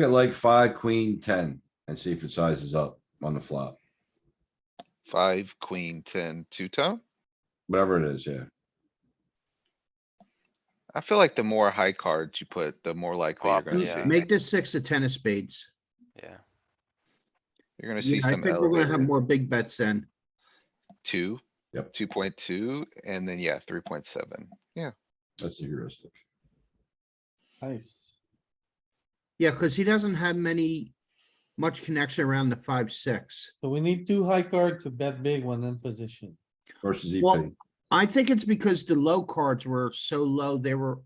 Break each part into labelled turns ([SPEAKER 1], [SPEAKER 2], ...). [SPEAKER 1] at like five, queen, ten and see if it sizes up on the flop,
[SPEAKER 2] Five, queen, ten, two tone.
[SPEAKER 1] whatever it is, yeah.
[SPEAKER 2] I feel like the more high cards you put, the more likely you're
[SPEAKER 3] Flop,
[SPEAKER 2] gonna
[SPEAKER 3] yeah.
[SPEAKER 2] see.
[SPEAKER 4] Make this six a ten of spades.
[SPEAKER 3] Yeah,
[SPEAKER 2] You're gonna see
[SPEAKER 4] Yeah, I
[SPEAKER 2] some
[SPEAKER 4] think we're gonna have
[SPEAKER 2] elevated
[SPEAKER 4] more big bets then.
[SPEAKER 2] two.
[SPEAKER 1] Yep.
[SPEAKER 2] Two point two, and then yeah, three point seven. Yeah,
[SPEAKER 1] That's the heuristic.
[SPEAKER 5] Nice.
[SPEAKER 4] Yeah, cuz he doesn't have many, much connection around the five, six.
[SPEAKER 5] So we need two high card to bet big when in position.
[SPEAKER 1] Versus E
[SPEAKER 4] Well,
[SPEAKER 1] EP.
[SPEAKER 4] I think it's because the low cards were so low, they were,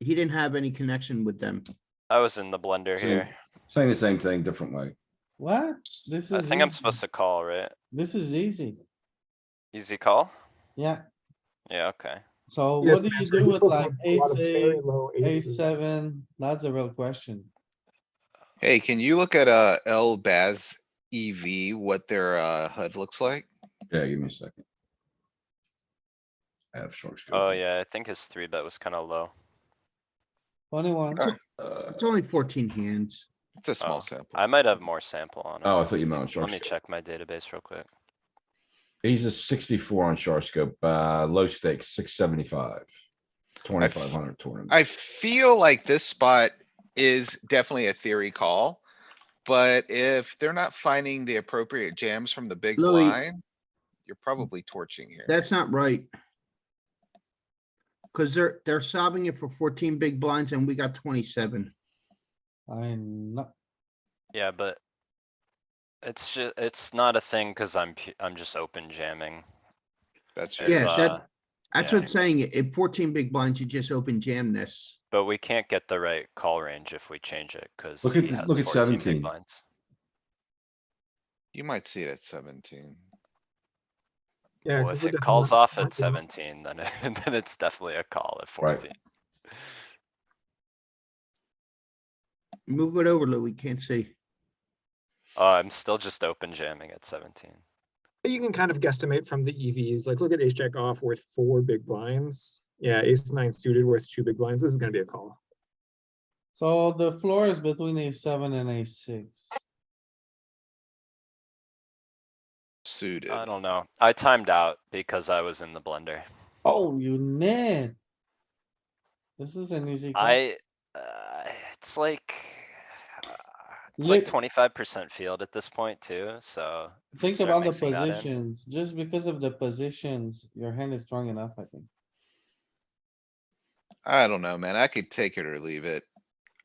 [SPEAKER 4] he didn't have any connection with them.
[SPEAKER 3] I was in the blender
[SPEAKER 1] Same.
[SPEAKER 3] here.
[SPEAKER 1] Saying the same thing, different way.
[SPEAKER 5] What? This is.
[SPEAKER 3] I think I'm
[SPEAKER 5] easy.
[SPEAKER 3] supposed to call, right?
[SPEAKER 5] This is easy.
[SPEAKER 3] Easy call?
[SPEAKER 5] Yeah,
[SPEAKER 3] Yeah, okay.
[SPEAKER 5] so
[SPEAKER 6] Yes,
[SPEAKER 5] what do you
[SPEAKER 6] that's
[SPEAKER 5] do
[SPEAKER 6] right.
[SPEAKER 5] with
[SPEAKER 6] Those
[SPEAKER 5] like
[SPEAKER 6] have a lot
[SPEAKER 5] ace
[SPEAKER 6] of very
[SPEAKER 5] eight,
[SPEAKER 6] low
[SPEAKER 5] ace
[SPEAKER 6] aces.
[SPEAKER 5] seven? That's a real question.
[SPEAKER 2] hey, can you look at uh L Baz EV, what their uh HUD looks like?
[SPEAKER 1] Yeah, give me a second. I have short.
[SPEAKER 3] Oh, yeah, I think his three bet was kinda low.
[SPEAKER 5] Twenty-one.
[SPEAKER 2] Alright.
[SPEAKER 1] Uh,
[SPEAKER 4] It's only fourteen hands.
[SPEAKER 2] It's a
[SPEAKER 3] Oh,
[SPEAKER 2] small sample.
[SPEAKER 3] I might have more sample on
[SPEAKER 1] oh, I
[SPEAKER 3] it.
[SPEAKER 1] thought you meant on short.
[SPEAKER 3] Let me
[SPEAKER 1] scope.
[SPEAKER 3] check my database real quick.
[SPEAKER 1] He's a sixty-four on short scope, uh, low stakes, six seventy-five. Twenty-five hundred tournament.
[SPEAKER 2] I feel like this spot is definitely a theory call. But if they're not finding the appropriate jams from the big
[SPEAKER 4] Louis.
[SPEAKER 2] blind, you're probably torching here.
[SPEAKER 4] That's not right. Cuz they're, they're solving it for fourteen big blinds and we got twenty-seven.
[SPEAKER 5] I'm not,
[SPEAKER 3] Yeah, but. It's ju- it's not a thing cuz I'm pu- I'm just open jamming.
[SPEAKER 2] That's
[SPEAKER 3] If,
[SPEAKER 2] true.
[SPEAKER 4] Yeah, that-
[SPEAKER 3] uh,
[SPEAKER 4] That's
[SPEAKER 3] Yeah.
[SPEAKER 4] what I'm saying. At fourteen big blinds, you just open jam this.
[SPEAKER 3] But we can't get the right call range if we change it, cuz.
[SPEAKER 1] Look at
[SPEAKER 3] he
[SPEAKER 1] this-
[SPEAKER 3] had
[SPEAKER 1] look at
[SPEAKER 3] 14 big
[SPEAKER 1] 17.
[SPEAKER 3] blinds.
[SPEAKER 2] You might see it at seventeen.
[SPEAKER 6] Yeah,
[SPEAKER 3] Well,
[SPEAKER 6] 'cause
[SPEAKER 3] if
[SPEAKER 6] with
[SPEAKER 3] it
[SPEAKER 6] the
[SPEAKER 3] calls
[SPEAKER 6] small-
[SPEAKER 3] off
[SPEAKER 6] small
[SPEAKER 3] at
[SPEAKER 6] jam-
[SPEAKER 3] seventeen, then it- then it's definitely a call at
[SPEAKER 1] Right.
[SPEAKER 3] fourteen.
[SPEAKER 4] Move it over, Louis. Can't see.
[SPEAKER 3] Oh, I'm still just open jamming at seventeen.
[SPEAKER 6] But you can kind of guesstimate from the EVs, like look at ace jack off worth four big blinds. Yeah, ace nine suited worth two big blinds. This is gonna be a call.
[SPEAKER 5] so the floor is between a seven and a six.
[SPEAKER 2] Suited.
[SPEAKER 3] I don't know. I timed out because I was in the blender.
[SPEAKER 5] Oh, you man. This is an easy. call.
[SPEAKER 3] I, uh, it's like. uh, It's like
[SPEAKER 5] Lit-
[SPEAKER 3] twenty-five percent field at this point too, so. if we
[SPEAKER 5] Think
[SPEAKER 3] start
[SPEAKER 5] about the
[SPEAKER 3] mixing that in-
[SPEAKER 5] positions, just because of the positions, your hand is strong enough, I think.
[SPEAKER 2] I don't know, man. I could take it or leave it.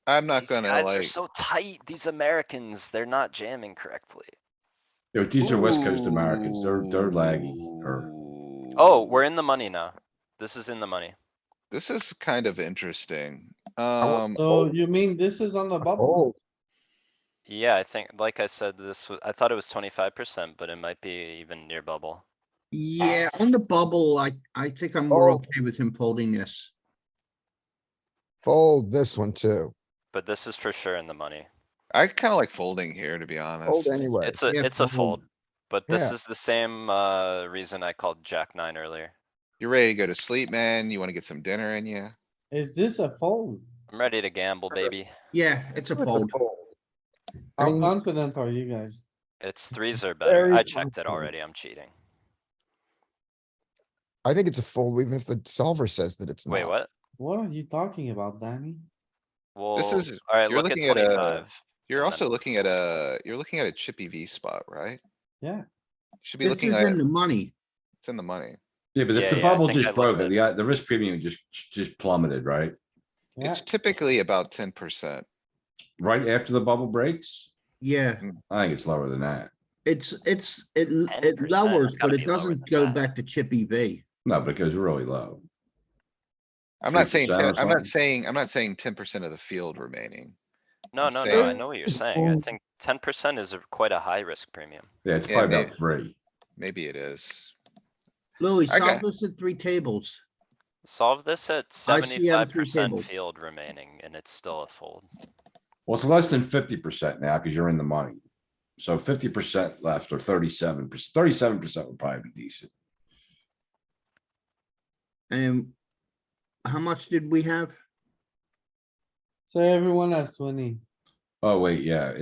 [SPEAKER 2] I'm not
[SPEAKER 3] These
[SPEAKER 2] gonna
[SPEAKER 3] guys are
[SPEAKER 2] like,
[SPEAKER 3] so tight. These Americans, they're not jamming correctly.
[SPEAKER 1] Yo, These are West Coast Americans. They're, they're laggy or
[SPEAKER 3] Oh, we're in the money now. This is in the money.
[SPEAKER 2] this is kind of interesting. Um,
[SPEAKER 5] So you mean this is on the bubble?
[SPEAKER 3] Yeah, I think, like I said, this was, I thought it was twenty-five percent, but it might be even near bubble.
[SPEAKER 4] Yeah, on the bubble, I, I think I'm more okay with him folding this.
[SPEAKER 7] Fold this one too.
[SPEAKER 3] But this is for sure in the money.
[SPEAKER 2] I kinda like folding here, to be honest.
[SPEAKER 7] Fold anyway.
[SPEAKER 3] It's a,
[SPEAKER 4] Yeah,
[SPEAKER 3] it's a
[SPEAKER 4] fold.
[SPEAKER 3] fold. But this
[SPEAKER 7] Yeah.
[SPEAKER 3] is the same, uh, reason I called Jack nine earlier.
[SPEAKER 2] You're ready to go to sleep, man. You wanna get some dinner in ya?
[SPEAKER 5] Is this a fold?
[SPEAKER 3] I'm ready to gamble, baby.
[SPEAKER 4] Yeah, it's a fold.
[SPEAKER 7] I
[SPEAKER 5] How
[SPEAKER 7] mean-
[SPEAKER 5] confident are you guys?
[SPEAKER 3] It's threes are better.
[SPEAKER 5] very
[SPEAKER 3] I checked it
[SPEAKER 5] confident.
[SPEAKER 3] already. I'm cheating.
[SPEAKER 7] I think it's a fold, even if the solver says that it's not.
[SPEAKER 3] Wait, what?
[SPEAKER 5] What are you talking about, Danny?
[SPEAKER 3] Well,
[SPEAKER 2] is-
[SPEAKER 3] alright,
[SPEAKER 2] you're
[SPEAKER 3] look at
[SPEAKER 2] looking at a-
[SPEAKER 3] twenty-five.
[SPEAKER 2] You're
[SPEAKER 3] And
[SPEAKER 2] also
[SPEAKER 3] then-
[SPEAKER 2] looking at a, you're looking at a chippy V spot, right?
[SPEAKER 5] Yeah.
[SPEAKER 2] Should be
[SPEAKER 4] This
[SPEAKER 2] looking
[SPEAKER 4] is
[SPEAKER 2] at,
[SPEAKER 4] in the money.
[SPEAKER 2] it's in the money.
[SPEAKER 1] Yeah, but
[SPEAKER 3] Yeah,
[SPEAKER 1] if the
[SPEAKER 3] yeah, I
[SPEAKER 1] bubble
[SPEAKER 3] think I
[SPEAKER 1] just
[SPEAKER 3] looked
[SPEAKER 1] broke,
[SPEAKER 3] at-
[SPEAKER 1] the, uh, the risk premium just, just plummeted, right?
[SPEAKER 5] Yeah,
[SPEAKER 2] It's typically about ten percent.
[SPEAKER 1] Right after the bubble breaks?
[SPEAKER 4] Yeah,
[SPEAKER 1] I think it's lower than that.
[SPEAKER 4] it's, it's, it, l-
[SPEAKER 3] 10%,
[SPEAKER 4] it
[SPEAKER 3] it's
[SPEAKER 4] lowers,
[SPEAKER 3] gotta
[SPEAKER 4] but
[SPEAKER 3] be
[SPEAKER 4] it
[SPEAKER 3] lower
[SPEAKER 4] doesn't
[SPEAKER 3] than
[SPEAKER 4] go
[SPEAKER 3] that.
[SPEAKER 4] back to chip EV.
[SPEAKER 1] No, but it goes really low.
[SPEAKER 2] I'm not saying,
[SPEAKER 1] 3% or
[SPEAKER 2] 10 I'm not
[SPEAKER 1] something.
[SPEAKER 2] saying, I'm not saying ten percent of the field remaining.
[SPEAKER 3] No,
[SPEAKER 2] I'm
[SPEAKER 3] no, no, I
[SPEAKER 2] saying-
[SPEAKER 3] know what you're
[SPEAKER 7] It's
[SPEAKER 3] saying. I
[SPEAKER 7] fold.
[SPEAKER 3] think ten percent is a- quite a high risk premium.
[SPEAKER 1] Yeah, it's
[SPEAKER 2] Yeah,
[SPEAKER 1] probably about
[SPEAKER 2] maybe.
[SPEAKER 1] three.
[SPEAKER 2] Maybe it is.
[SPEAKER 4] Louis,
[SPEAKER 2] I
[SPEAKER 4] solve
[SPEAKER 2] got-
[SPEAKER 4] this at three tables.
[SPEAKER 3] Solve this at seventy-five percent
[SPEAKER 4] table.
[SPEAKER 3] field remaining and it's still a fold.
[SPEAKER 1] Well, it's less than fifty percent now because you're in the money. So fifty percent left or thirty-seven percent, thirty-seven percent would probably be decent.
[SPEAKER 4] And how much did we have?
[SPEAKER 5] so everyone has twenty.
[SPEAKER 1] Oh, wait, yeah,